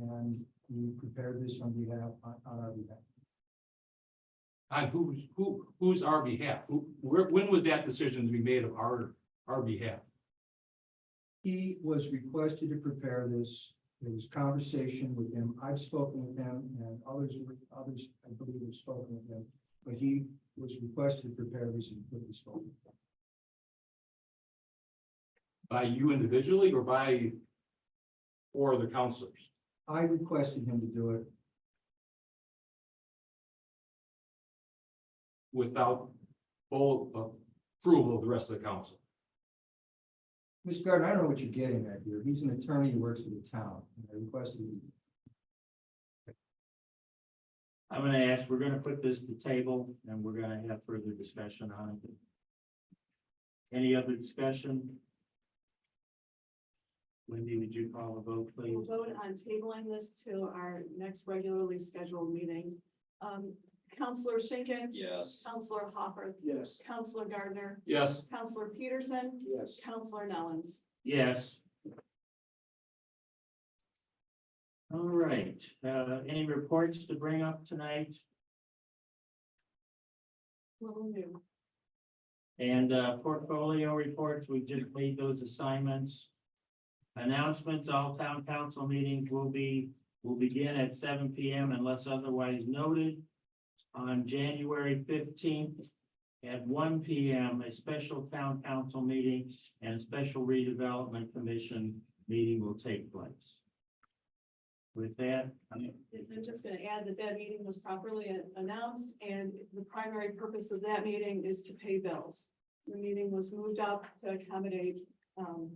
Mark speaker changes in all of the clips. Speaker 1: and you prepared this on behalf, on on our behalf.
Speaker 2: On who's, Uh, who, who's our behalf? Who, where, when was that decision to be made of our, our behalf?
Speaker 1: He was requested to prepare this. There was conversation with him. I've spoken with him and others, were- others, I believe, have spoken with him. But he was requested to prepare this and put this forward.
Speaker 2: By you individually or by? Or the counselors?
Speaker 1: I requested him to do it.
Speaker 2: without full approval of the rest of the council.
Speaker 1: Ms. Gardner, I don't know what you're getting at here. He's an attorney who works for the town. and I requested him.
Speaker 3: I'm gonna ask, we're gonna put this to table and we're gonna have further discussion on it. Any other discussion? Wendy, would you call a vote,
Speaker 4: We'll
Speaker 3: please?
Speaker 4: vote on tabling this to our next regularly scheduled meeting. Um, Counselor Schinkin.
Speaker 2: Yes.
Speaker 4: Counselor Hopper.
Speaker 1: Yes.
Speaker 4: Counselor Gardner.
Speaker 2: Yes,
Speaker 4: Counselor Peterson.
Speaker 1: Yes.
Speaker 4: Counselor Nellens.
Speaker 3: Yes. All right, uh, any reports to bring up tonight?
Speaker 4: Little new.
Speaker 3: And uh, portfolio reports, we just made those assignments. Announcements, all town council meetings will be, will begin at seven P M unless otherwise noted. On January fifteenth at one P M, a special town council meeting and a special redevelopment commission meeting will take place. With that, I'm-
Speaker 4: I'm just gonna add that that meeting was properly announced and the primary purpose of that meeting is to pay bills. The meeting was moved up to accommodate, um,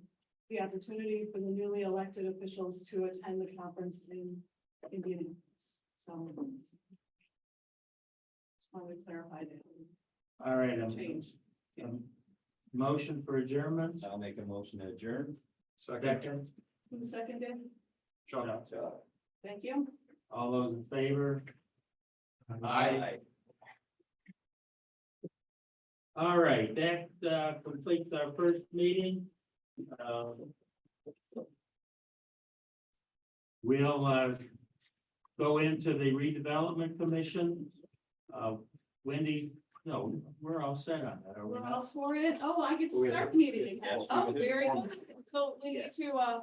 Speaker 4: the opportunity for the newly elected officials to attend the conference in Indianapolis. So. Just wanted to clarify that.
Speaker 3: all right, I'm-
Speaker 4: Change.
Speaker 3: I'm- Motion for adjournment,
Speaker 5: I'll make a motion to adjourn.
Speaker 2: second,
Speaker 3: second,
Speaker 4: Who seconded?
Speaker 2: Chuck.
Speaker 4: Thank you.
Speaker 3: all those in favor?
Speaker 2: Aye.
Speaker 3: All right, that uh, completes our first meeting. Um, We'll uh, go into the redevelopment commission. Uh, Wendy, no, we're all set on that, are we
Speaker 4: We're all
Speaker 3: not?
Speaker 4: sworn in. Oh, I get to
Speaker 5: We
Speaker 4: start the meeting.
Speaker 5: Yes.
Speaker 4: Oh, very good. So we need to, uh,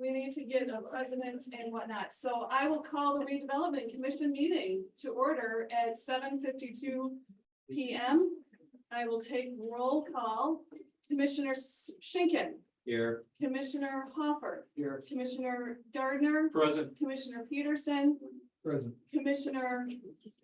Speaker 4: we need to get a president and whatnot. So I will call the redevelopment commission meeting to order at seven fifty-two P M. I will take roll call. Commissioner Schinkin,
Speaker 5: Here.
Speaker 4: Commissioner Hopper,
Speaker 1: Here,
Speaker 4: Commissioner Gardner,
Speaker 2: present,
Speaker 4: Commissioner Peterson,
Speaker 1: present.
Speaker 4: Commissioner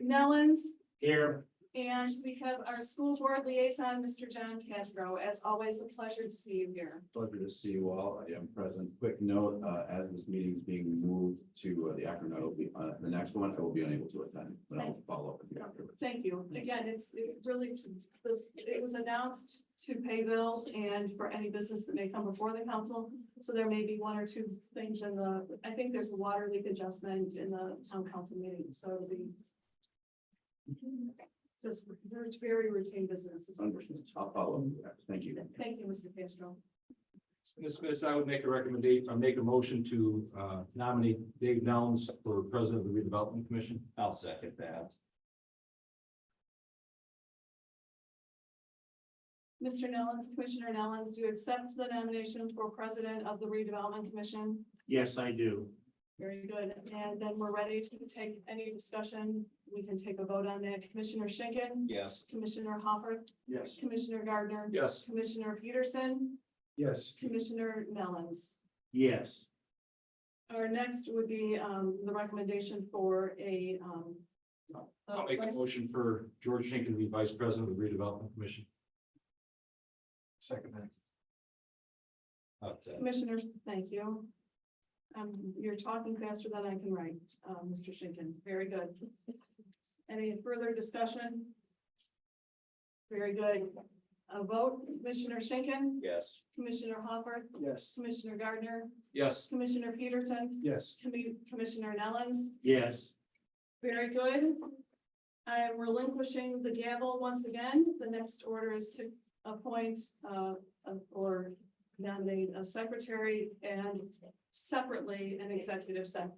Speaker 4: Nellens,
Speaker 3: Here,
Speaker 4: and we have our school board liaison, Mr. John Castro. As always, a pleasure to see you here.
Speaker 5: Pleasure to see you all. I am present. Quick note, uh, as this meeting is being moved to uh, the Akron, I will be, uh, the next one, I will be unable to attend, but I'll follow up with you afterwards.
Speaker 4: Thank you. Again, it's, it's really, to- this, it was announced to pay bills and for any business that may come before the council. So there may be one or two things in the, I think there's a water leak adjustment in the town council meeting, so it'll be just very, very routine business. is what we're doing.
Speaker 5: Understood. I'll follow up. with you after. Thank you.
Speaker 4: Thank you, Mr. Castro.
Speaker 2: Ms. Smith, I would make a recommendation, I make a motion to uh, nominate Dave Nellens for president of the redevelopment commission.
Speaker 5: I'll second that.
Speaker 4: Mr. Nellens, Commissioner Nellens, do you accept the nomination for president of the redevelopment commission?
Speaker 3: yes, I do.
Speaker 4: Very good. And then we're ready to take any discussion. We can take a vote on that. Commissioner Schinkin,
Speaker 5: Yes.
Speaker 4: Commissioner Hopper,
Speaker 3: Yes.
Speaker 4: Commissioner Gardner,
Speaker 2: Yes,
Speaker 4: Commissioner Peterson,
Speaker 1: Yes.
Speaker 4: Commissioner Nellens.
Speaker 3: Yes,
Speaker 4: Our next would be um, the recommendation for a um.
Speaker 2: I'll make a motion for George Schinkin to be vice president of the redevelopment commission.
Speaker 1: Second that.
Speaker 4: Commissioners, thank you. Um, you're talking faster than I can write, uh, Mr. Schinkin. Very good. Any further discussion? Very good. A vote, Commissioner Schinkin,
Speaker 5: Yes.
Speaker 4: Commissioner Hopper,
Speaker 1: Yes.
Speaker 4: Commissioner Gardner,
Speaker 2: Yes,
Speaker 4: Commissioner Peterson,
Speaker 1: Yes.
Speaker 4: Commi- Commissioner Nellens.
Speaker 3: yes,
Speaker 4: Very good. I am relinquishing the gavel once again. The next order is to appoint uh, a- or nominate a secretary and separately an executive sec-